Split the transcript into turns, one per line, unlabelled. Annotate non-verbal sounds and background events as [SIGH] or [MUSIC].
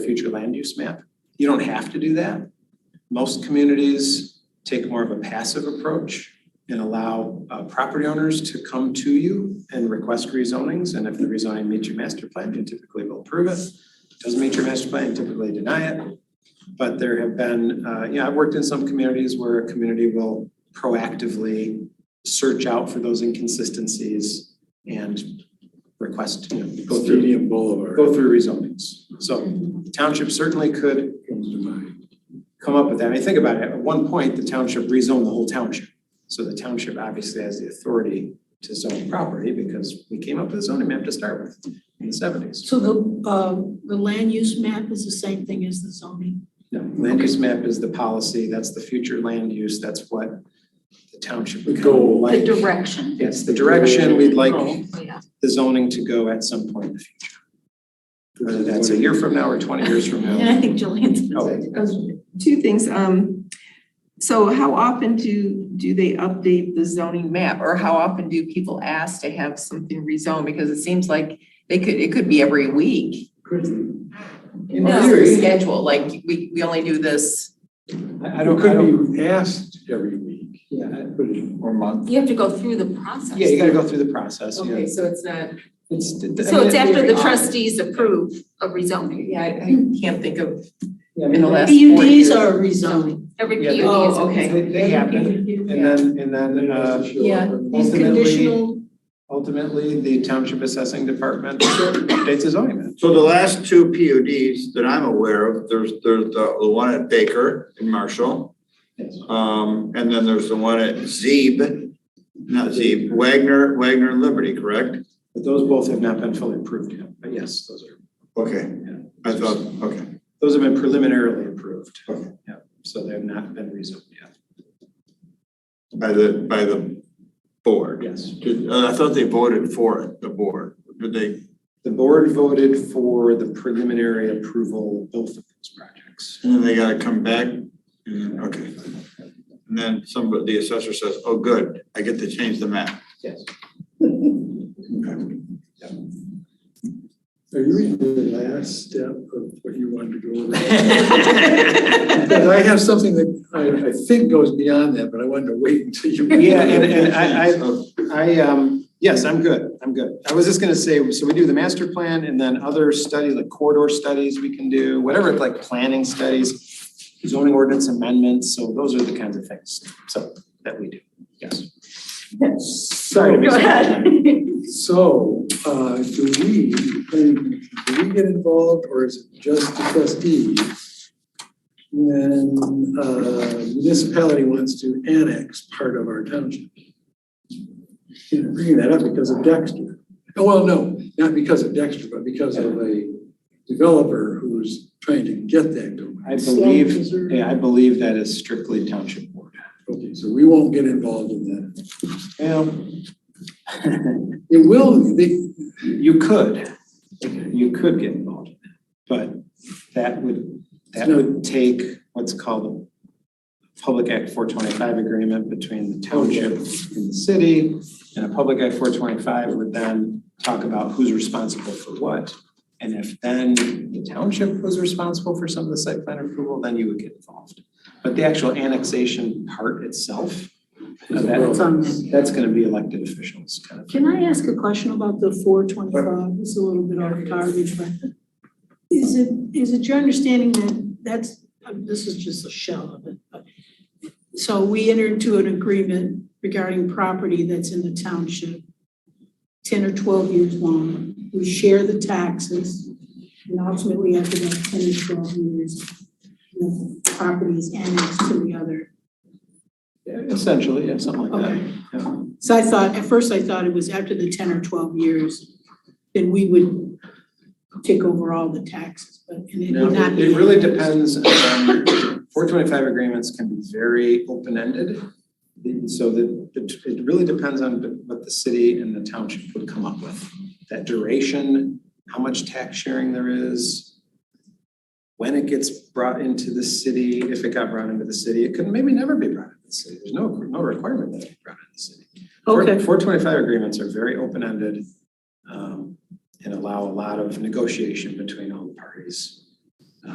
future land use map. You don't have to do that. Most communities take more of a passive approach and allow uh, property owners to come to you and request rezonings. And if the rezoning meets your master plan, you typically will approve it. Doesn't meet your master plan, you typically deny it. But there have been, uh, yeah, I've worked in some communities where a community will proactively search out for those inconsistencies and request, you know, go through,
Stadium Boulevard
go through rezonings. So the township certainly could
comes to mind.
come up with that. I mean, think about it, at one point, the township rezoned the whole township. So the township obviously has the authority to zone property because we came up with a zoning map to start with in the seventies.
So the, um, the land use map is the same thing as the zoning?
No, land use map is the policy, that's the future land use, that's what the township would
The
kind of
goal.
like.
direction.
Yes, the direction we'd
Oh.
like
yeah.
the zoning to go at some point in the future, whether that's a year from now or twenty years from
And
[LAUGHS]
now.
I think Jillian's.
Oh.
two things, um, so how often do, do they update the zoning map? Or how often do people ask to have something rezoned? Because it seems like they could, it could be every week.
In
Or
theory,
Schedule, like, we, we only do this.
I I
it
don't, I don't,
could be asked every week,
yeah, I-
but it- or month.
You have to go through the process.
yeah, you gotta go through the process, yeah.
Okay, so it's not,
It's.
so it's after the trustees approve of rezoning.
Yeah, I, I can't think of
Yeah, I
in the
mean,
last four years.
PUDs are rezoning.
Every
Yeah,
PUD is.
Oh, okay.
they, they happen, and then, and then, uh,
Yeah.
These
ultimately,
conditional,
ultimately, the township assessing department updates his zoning map.
So the last two PUDs that I'm aware of, there's, there's the the one at Baker in Marshall.
Yes.
Um, and then there's the one at Zeeb, not Zeeb, Wagner, Wagner and Liberty, correct?
But those both have not been fully approved yet, but yes, those are,
Okay, I thought, okay.
those have been preliminarily approved.
Okay.
Yeah, so they have not been rezoned yet,
By the, by the board.
yes.
Did, uh, I thought they voted for it, the board. Did they,
The board voted for the preliminary approval, of both of those projects.
and then they gotta come back? And then- Okay. And then somebody, the assessor says, oh, good, I get to change the map.
Yes.
Are you the last step of what you wanted to go [LAUGHS]
[LAUGHS]
[LAUGHS]
over? Because I have something that I, I think goes beyond that, but I wanted to wait until you.
Yeah, and, and I, I, I, um, yes, I'm good, I'm good. I was just gonna say, so we do the master plan and then other study, like corridor studies we can do, whatever, like planning studies, zoning ordinance amendments, so those are the kinds of things, so, that we do, yes. Sorry to make.
Go ahead.
So, uh, do we, do we get involved or is it just the trustees? When, uh, municipality wants to annex part of our township? You know, Bringing that up because of Dexter. Oh, well, no, not because of Dexter, but because of a developer who's trying to get that domain.
I believe, yeah, I believe that is strictly township board.
Okay, so we won't get involved in that.
Well,
It will, they,
you could, you could get involved in that, but that would, that would take what's called a Public Act four twenty-five agreement between the township and the city. And a Public Act four twenty-five would then talk about who's responsible for what. And if then the township was responsible for some of the site plan approval, then you would get involved. But the actual annexation part itself, that's, that's gonna be elected officials kind of.
can I ask a question about the four twenty-five? It's a little bit off target, but is it, is it your understanding that that's, uh, this is just a shell of it, but so we entered into an agreement regarding property that's in the township, ten or twelve years long. We share the taxes, and ultimately after that ten or twelve years, the property is annexed to the other
Essentially, yeah, something like that.
Okay.
Yeah.
So I thought, at first I thought it was after the ten or twelve years, then we would take over all the taxes, but and it
No,
would not
it
be.
it really depends. Four twenty-five agreements can be very open-ended. The- So that, it it really depends on what the city and the township would come up with. That duration, how much tax sharing there is, when it gets brought into the city, if it got brought into the city, it could maybe never be brought into the city. There's no, no requirement that it be brought into the city.
Okay,
Four twenty-five agreements are very open-ended um, and allow a lot of negotiation between all the parties.